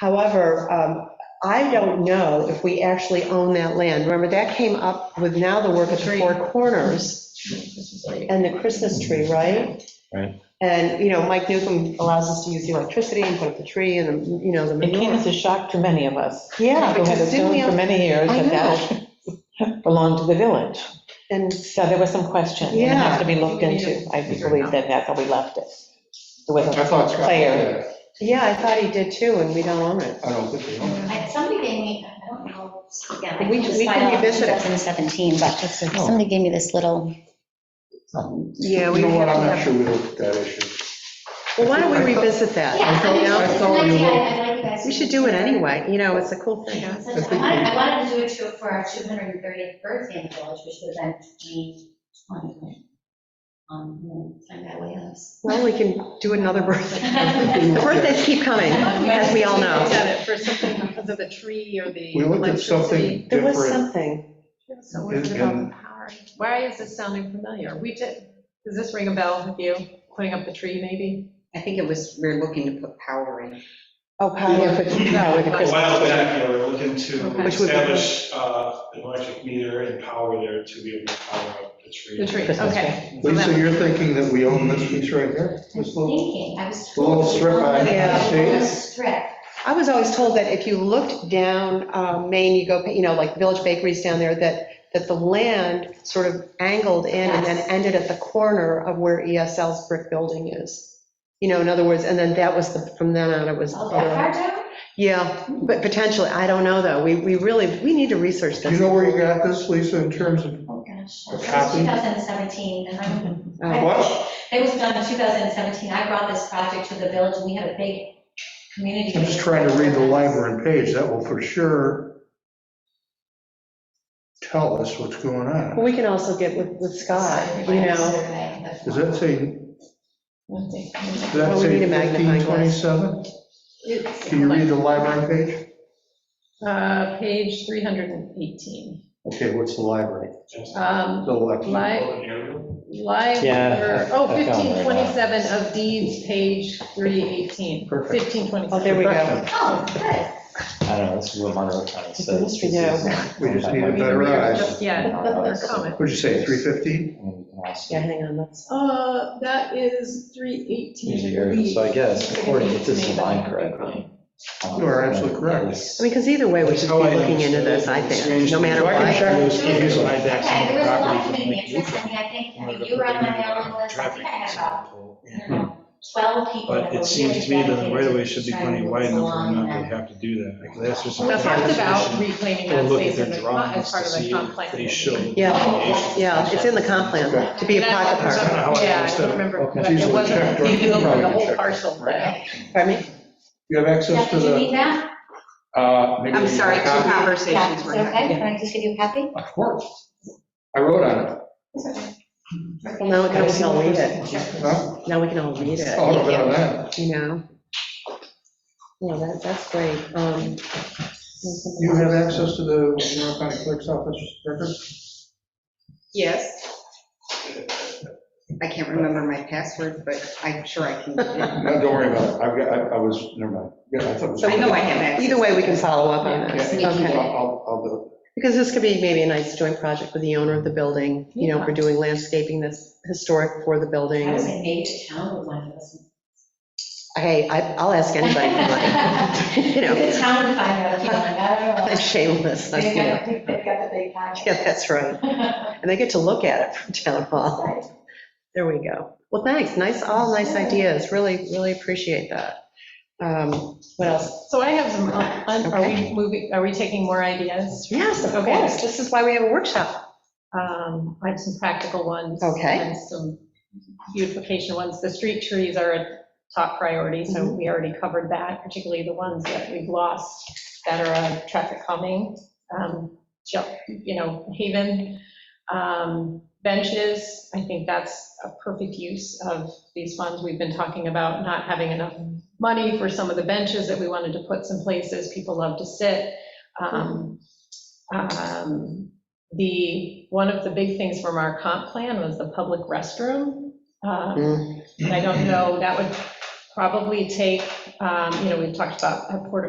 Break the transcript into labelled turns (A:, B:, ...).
A: However, um, I don't know if we actually own that land. Remember, that came up with now the work at the Four Corners and the Christmas tree, right?
B: Right.
A: And, you know, Mike Newcomb allows us to use the electricity and put up the tree and, the you know, the
C: It came
A: manure.
C: as a shock to many of us.
A: Yeah,
C: Who had
A: because didn't
C: assumed
A: we,
C: for many years
A: I
C: that that belonged to the village.
A: and
C: So there was some question, and it has to be looked
A: Yeah.
C: into. I believe that that's how we left it. It wasn't
D: I thought Scott
C: clear.
D: did.
A: yeah, I thought he did too, and we don't own it.
D: I don't think they own it.
E: I- Somebody gave me, I don't know, again, I
A: We-
E: can just
A: we
E: find
A: can
E: out in
A: revisit it.
E: 2017, but somebody gave me this little,
A: Yeah, we
D: You know what, I'm
A: have to
D: not sure we looked at that issue.
A: Well, why don't we revisit that?
E: yeah, I
A: you
E: mean,
A: know?
E: it's an
D: thought we
E: idea,
D: were-
E: I'd like you guys.
A: We should do it anyway, you know, it's a cool
E: You
A: thing.
E: know, since I wanted, I wanted to do it to- for our 230th birthday in the village, which would have been June 20. Um, we'll Find out what else.
A: Well, we can do another birthday. The birthdays keep coming, as we all
F: We looked
A: know.
F: at it for something because of the tree or the
D: We looked at
F: electricity.
D: something
A: There was
D: different.
A: something,
F: So what is it about the power? Why is this sounding familiar? We did, does this ring a bell with you, putting up the tree maybe?
G: I think it was, we we're looking to put power in.
C: Oh, power for, power the
H: A
C: Christmas.
H: while back, they were looking
F: Okay.
H: to
A: Which would be-
H: establish uh, an electric meter and power there to be able to power up the tree.
F: The tree,
C: Christmas
F: okay. So
D: Lisa,
F: that-
D: you're thinking that we own this piece right here? This little,
E: Thinking, I was.
D: the little strip I
A: Yeah.
E: A little
D: see?
E: strip.
A: I was always told that if you looked down um, Maine, you go, you know, like Village Bakeries down there, that, that the land sort of angled in and then
E: Yes.
A: ended at the corner of where ESL's brick building is. You know, in other words, and then that was the, from then on, it was.
E: Oh, that far down?
A: Yeah, but potentially, I don't know, though. We, we really, we need to research
D: Do
A: this.
D: you know where you got this, Lisa, in terms of
E: Oh, gosh.
D: A
E: That was
D: copy?
E: 2017, and I'm.
A: Oh.
D: what?
E: It was done in 2017. I brought this project to the village, and we had a big community.
D: I'm just trying to read the line we're in page. That will for sure tell us what's going
A: Well,
D: on.
A: we can also get with, with Scott, you know.
D: Does that say, does that
A: Well, we
D: say
A: need a magnifying glass.
D: 1527?
F: It's
D: Can you read the library page?
F: uh, Page 318.
D: Okay, what's the library?
F: Um,
D: The left.
F: Li- Live,
B: Yeah,
F: or- oh,
B: I found it right now.
F: 1527 of deeds, page 318.
D: Perfect.
F: 1527.
A: Oh, there we go.
D: Perfection.
E: Oh, good.
B: I don't know, this is what Monroe County says.
A: Yes, we
B: This
A: do.
B: is-
D: We just need a
B: And
D: better eye.
F: Yeah, they're coming.
D: What'd you say, 350?
B: we can
A: Yeah,
B: also-
A: hang on, let's,
F: Uh, that is three
B: These are
F: eighteen.
B: areas, so I guess, according to this line correctly. um,
D: You are absolutely correct.
A: I mean, because either way, we should be looking into this, I think, no matter what.
E: Okay, there was a lot of community interest, I mean, I think, I mean, you were on my mailing list, I think I had about, I don't know, 12 people. that
I: But
E: were
I: it seems to me
E: really
I: that the
E: dedicated
I: right of way
E: to
I: should be
E: trying to
I: plenty
E: move
I: wide
E: this
I: enough for
E: along,
I: them
E: and
I: not to
E: then-
I: have to do that. That's just.
F: We talked about reclaiming
I: Or
F: that
I: Oh, look at
F: space
I: their
F: as a, comp-
I: drawings
F: as
I: to
F: part of a
I: see
F: comp
I: if
F: plan.
I: they show.
A: Yeah, yeah, it's in the comp plan, to be a pocket
F: And I don't
A: park.
F: remember-
I: That's kinda how I
F: Yeah, I
I: understood
F: don't
I: it.
F: remember,
B: Okay.
F: but it wasn't,
D: Probably
F: you could open the
D: check
F: whole
D: it.
F: parcel, but
A: Pardon me?
D: You have access
E: Jeff,
D: to
E: did you
D: the.
E: need that?
D: I'm
G: I'm sorry, two
E: Yeah,
G: conversations
E: is
G: were
E: it okay?
G: had.
E: Can I just give you a copy?
D: Of course. I wrote on it.
A: Well, now we can all read it.
D: Huh?
A: Now we can all read it,
D: Oh, no, no, no.
A: you know? Yeah, that, that's great. Um,
D: You have access to the Monroe County Clerk's Office records?
G: Yes. I can't remember my password, but I'm sure I can.
D: No, don't worry about it. I've got, I- I was, never mind. Yeah, I thought it was.
A: So
G: I know I have access.
A: Either way, we can follow up on this,
D: Yeah,
G: okay.
D: I'll- I'll, I'll do
A: Because this could be maybe a nice joint project with the owner of the building, you know, if we're doing landscaping that's historic for the building.
E: I was in Nate Town with one of those.
A: Hey, I- I'll ask anybody for money, you know,
E: The town would find out if you want, I don't know.
A: I'm shameless, you
E: They've
A: know.
E: got the big- they've got the big pockets.
A: Yeah, that's right. And they get to look at it from town hall.
E: Right.
A: There we go. Well, thanks, nice, all nice ideas, really, really appreciate that. Um, What else?
F: So I have some, un- un- are
A: Okay.
F: we moving, are we taking more ideas?
A: Yes, of
F: Okay.
A: course, this is why we have a workshop.
F: Um, I have some practical ones.
A: Okay.
F: And some beautification ones. The street trees are a top priority, so we already covered that, particularly the ones that we've lost that are uh, traffic calming. Um, ju- You know, Haven, um, benches, I think that's a perfect use of these funds. We've been talking about not having enough money for some of the benches that we wanted to put some places. People love to sit. Um, um, the, one of the big things from our comp plan was the public restroom. Um, And I don't know, that would probably take, um, you know, we've talked about a porta